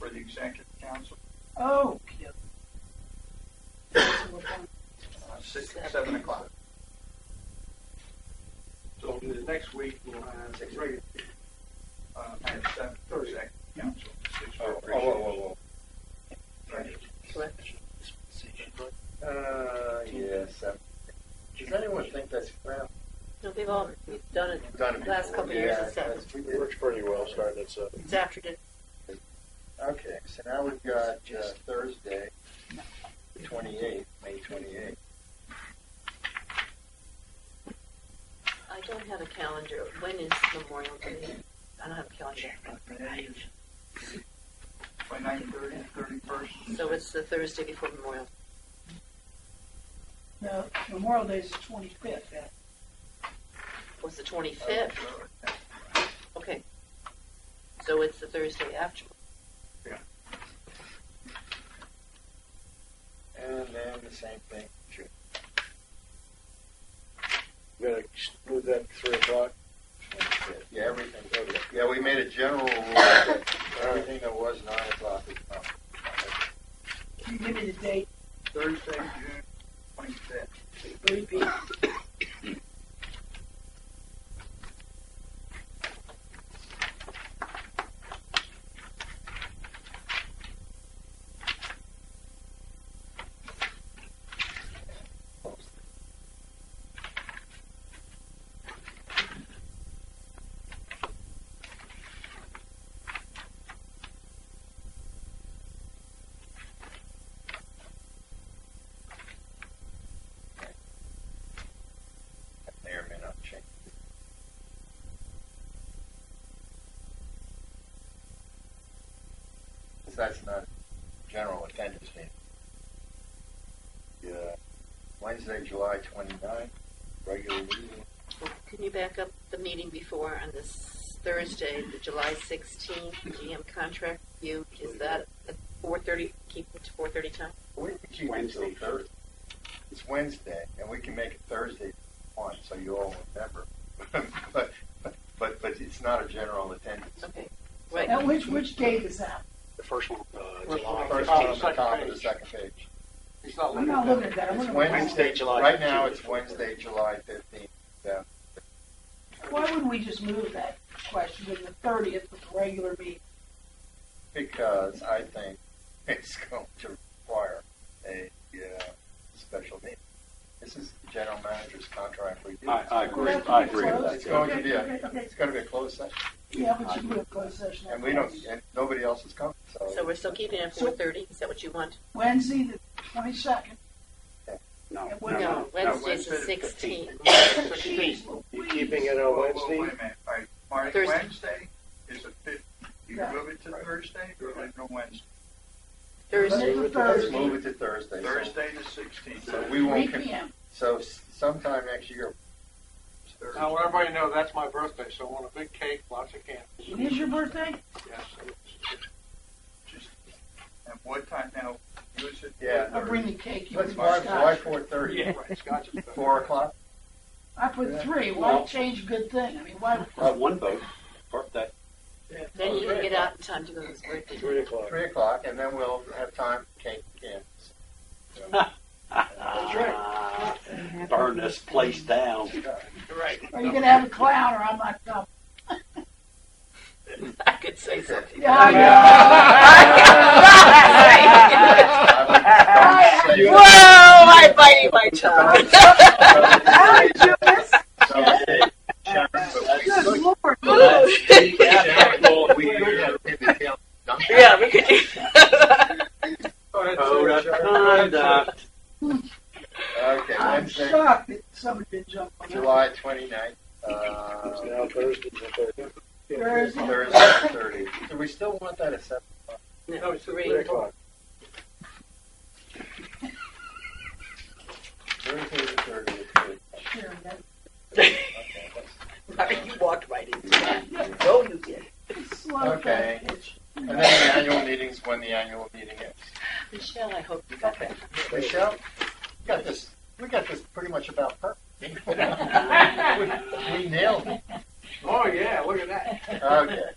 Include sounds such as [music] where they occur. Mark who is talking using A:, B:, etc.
A: the executive council. Oh, yeah. Uh, six, seven o'clock. So the next week, we'll have six regular, uh, at seven, Thursday, council. six
B: Oh,
A: regular.
B: whoa, whoa, whoa. Uh, yes. uh, Does anyone think that's crap?
C: No, we've all we've done it.
B: We've done it
C: Last
B: before.
C: couple of years,
B: Yeah,
C: it's seven.
B: that's- we
D: It
B: did.
D: works pretty well starting at uh, seven.
C: It's after dinner.
B: Okay, so now we've got uh, Thursday, twenty-eighth, May twenty-eighth.
C: I don't have a calendar. When is Memorial Day? I don't have a calendar.
A: By nine thirty, thirty-first.
C: So it's the Thursday before Memorial.
E: No, Memorial Day is the twenty-fifth, yeah.
C: Was the twenty fifth? Okay. So it's the Thursday after.
B: And then the same thing.
D: You gotta move that to three o'clock.
B: Yeah, everything, oh, yeah, we made a general rule that
C: [coughs]
B: everything that was nine o'clock is not.
E: Can you give me the date,
A: Thursday, June twenty-fifth.
E: three P,
B: That may or may not change. Because that's not general attendance meeting. Yeah. Wednesday, July 29th, regular meeting.
C: Well, Can you back up the meeting before on this Thursday, the July sixteenth, GM contract review? Is that at four thirty? Keep it to four thirty time.
B: We can keep it till
D: Wednesday,
B: Thursday. It's Wednesday, and we can make it Thursday if you want, so you all remember. [laughs] But, but, but it's not a general attendance.
C: Okay. Right.
E: now which, which date is that?
D: The first one, uh,
F: First
D: July.
F: one.
B: First
F: Oh,
B: one on the
F: second
B: top of the
F: page.
B: second page.
F: It's not
E: I'm not looking at that, I'm
B: It's
E: looking at.
B: Wednesday,
F: July
B: July. Right now, it's
F: 15th.
B: Wednesday, July fifteenth. Yeah.
E: Why wouldn't we just move that question to the thirtieth with the regular meeting?
B: Because I think [laughs] it's going to require a uh, special meeting. This is the general manager's contract review.
F: I- I
E: Would
F: agree.
E: that be
F: I agree.
E: closed?
B: It's going to
E: Okay,
B: be a,
E: okay, okay.
B: it's going to be a closed session,
E: Yeah, but you can do a closed session.
B: and we don't, and nobody else is coming, so.
C: So we're still keeping it at
E: So-
C: four thirty. Is that what you want?
E: Wednesday, the twenty-second.
F: No,
E: No,
F: no, no.
C: Wednesday's
A: Wednesday
C: the
A: the
C: sixteenth.
F: Sixteenth.
D: You keeping it on
A: Wait
D: Wednesday?
A: a minute, All right, Mark,
C: Thursday.
A: Wednesday is the fifth, you
E: Yeah.
A: move it to Thursday, or leave it on Wednesday?
C: Thursday.
E: Thursday.
B: Let's move it to Thursday. So-
A: Thursday the sixteenth.
B: So we
E: Three
B: won't, con-
E: P M.
B: so s- sometime next year,
F: I want everybody to know that's my birthday, so I want a big cake, lots of candy.
E: It is your birthday?
F: [laughs] Yes, it's-
A: And what time now, you said.
B: Yeah.
E: I'll bring the cake. You
B: let's
E: bring
B: mark
E: the
B: July
E: scotch.
B: four thirty,
F: it's- right, Scott's is better.
B: four o'clock.
E: I put three, why change a good thing? I mean, why?
G: Uh, one vote, birthday.
C: Then you can get out in time to go to his birthday.
D: Three o'clock.
B: three o'clock, and then we'll have time for cake and
G: That's right. Burn this place down.
E: Are you gonna have a clown or I'm not
B: [laughs]
E: coming?
C: [laughs] I could say something.
E: Yeah, I
C: Whoa! I bite my tongue.
E: How did you miss? Good lord.
C: [laughs] yeah, we [laughs] could do.
F: Go ahead,
G: Code
F: say
G: of
F: it, Sharon. Go ahead, say it.
G: conduct.
B: Okay,
E: I'm
B: Wednesday,
E: shocked that somebody didn't jump on that.
B: July twenty-ninth, uh,
D: It's now Thursday, the thirtieth.
E: Thursday.
B: Thursday, thirty. Do we still want that at seven?
C: No,
D: Three
C: [laughs] three.
D: o'clock.
B: Thursday, the thirtieth.
E: Sure, that-
B: Okay, that's-
C: you walked right into that. No, Oh, you did.
E: slow
B: Okay.
E: package.
B: And then the annual meetings, when the annual meeting is.
C: Michelle, I hope you got that.
B: Michelle, we got this, we got this pretty much about perfect. We we nailed it.
F: Oh, yeah, look at that.
B: Okay.